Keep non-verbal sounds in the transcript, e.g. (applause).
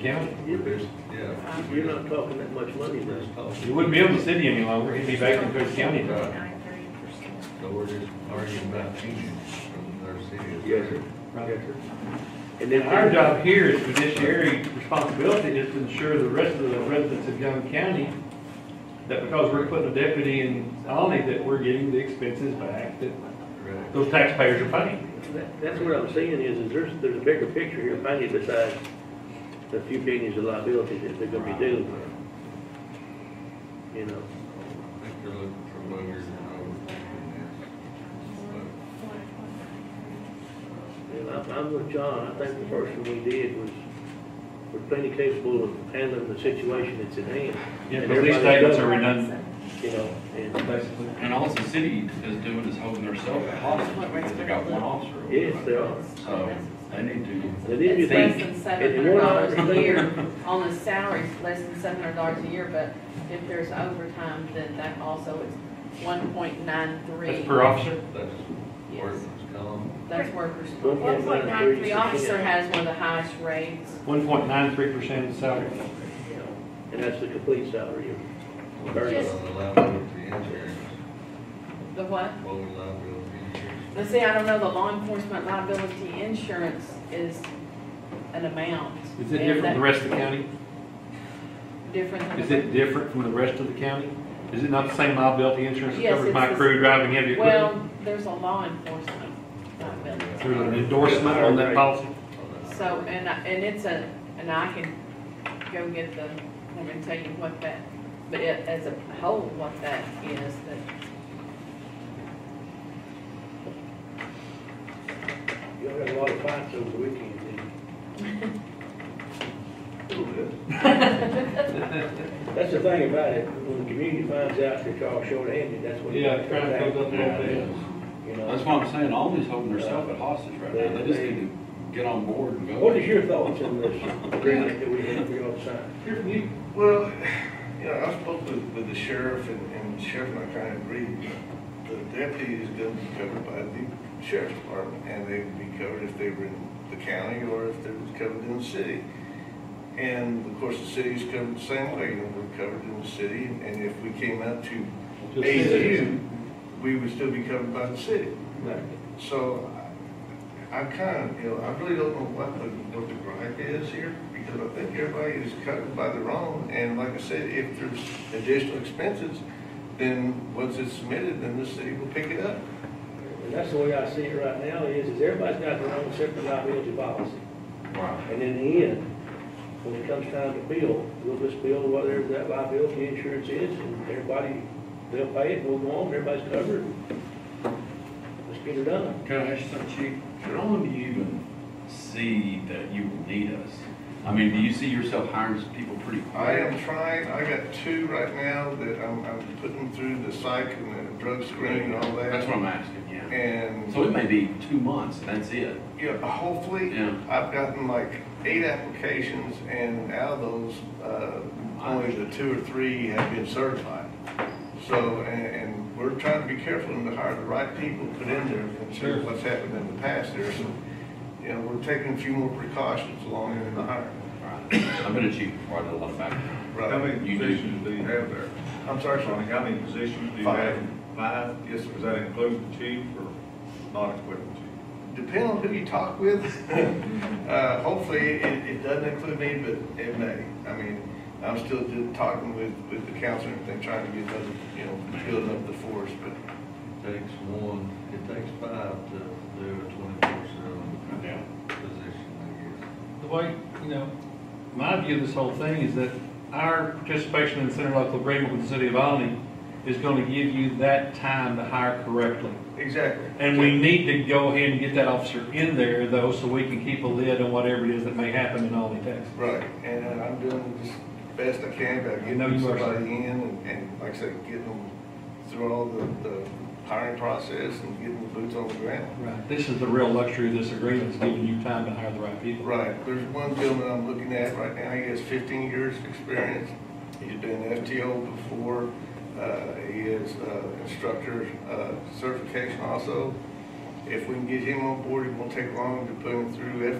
county. You're busy, yeah. You're not talking that much money now. He wouldn't be able to city any longer, he'd be back in Cook County. Right. Nine thirty percent. So we're just arguing about changes from their city. Yes, sir. Right. And And then our job here is fiduciary responsibility is to ensure the rest of the residents of Young County that because we're putting a deputy in Alny, that we're getting the expenses back that Right. those taxpayers are paying. That- That's what I'm saying is, is there's, there's a bigger picture here behind you besides the few pennies of liability that they're gonna be dealing with. You I know, think they're looking for lawyers and overthinking and I'm, I'm with John, I think the first thing we did was, we're plenty capable of handling the situation that's at hand. Yeah, And but these everybody's statements are done, redundant, You know, and basically. And all the city is doing is holding themselves hostage because they got one officer. over Yes, they there. are. So they need to. they need to It's um, think, less than And seven you hundred wanna dollars a understand- year, on the salaries, less than seven hundred dollars a year, but if there's overtime, then that also is one point nine three. That's per officer? that. That's where it's come. That's workers. One One point point nine nine three. The officer has one of the highest rates. One point nine three percent of salary. you know, and that's the complete salary. What's on the liability insurance? The what? What was liability insurance? Now, see, I don't know, the law enforcement liability insurance is an amount. Is it and different from the that- rest of the county? Different than. Is the- it different from the rest of the county? Is it not the same liability insurance that Yes, covers it's my the- crew driving heavy equipment? Well, there's a law enforcement liability. There's an endorsement on that policy? So, and, I- and it's a, and I can go get the, I'm gonna tell you what that, but it, as a whole, what that is, that, Y'all had a lot of fights over the weekend, and that's the thing about it, when the community finds out that y'all short-handed, that's when. You know. That's why I'm saying, all these holding themselves at hostage right now. They just need to get on board and go. What is your thoughts on this agreement that we have, we all signed? Well, you know, I spoke with, with the sheriff and, and the sheriff and I kind of agreed. The deputy is gonna be covered by the sheriff's department and they would be covered if they were in the county or if they were covered in the city. And of course, the city's covered the same way, and we're covered in the city. And if we came out to AU, we would still be covered by the city. So I kind of, you know, I really don't know what the, what the gripe is here, because I think everybody is covered by their own, and like I said, if there's additional expenses, then once it's submitted, then the city will pick it up. And that's the way I see it right now, is, is everybody's got their own separate liability policy. Wow. And in the end, when it comes time to bill, we'll just bill whatever that liability insurance is, and everybody, they'll pay it, we'll go on, everybody's covered. Let's get it done. Can I ask you something, Chief? How long do you even see that you will need us? I mean, do you see yourself hiring some people pretty quick? I am trying, I got two right now that I'm, I'm putting through the psych and the drug screen and all That's that. what I'm asking, yeah. And, So it may be two months and that's it. you know, hopefully, Yeah. I've gotten like eight applications, and out of those, uh, only the two or three have been certified. So, and, and we're trying to be careful and to hire the right people put in there, and see what's happened in the past there, so, you know, we're taking a few more precautions along in the hiring. I've been a chief before, I did a lot of background. How Right. many You do. positions do you have there? I'm sorry, Like, Sean. how many positions do you Five. have? Five? Yes, sir. Does that include the chief or not include the chief? Depending on who you talk with, (laughs) uh, hopefully, it, it doesn't include me, but it may. I mean, I'm still do- talking with, with the council and everything, trying to get those, you know, building up the force, but Takes one, it takes five to do a twenty-four seven Yeah. position, The way, you know, my view of this whole thing is that our participation in the interlocal agreement with the city of Alny is gonna give you that time to hire correctly. Exactly. And we need to go ahead and get that officer in there though, so we can keep a lid on whatever it is that may happen in Alny, Texas. Right, and uh, I'm doing just best I can about I know getting you are, sir. somebody in and, and like I said, getting them through all the, the hiring process and getting the boots on the ground. Right. This is the real luxury of this agreement, is giving you time to hire the right people. Right, there's one gentleman I'm looking at right now, he has fifteen years of experience. He's been FTO before, uh, he is, uh, instructor, uh, certification also. If we can get him on board, it won't take long to put him through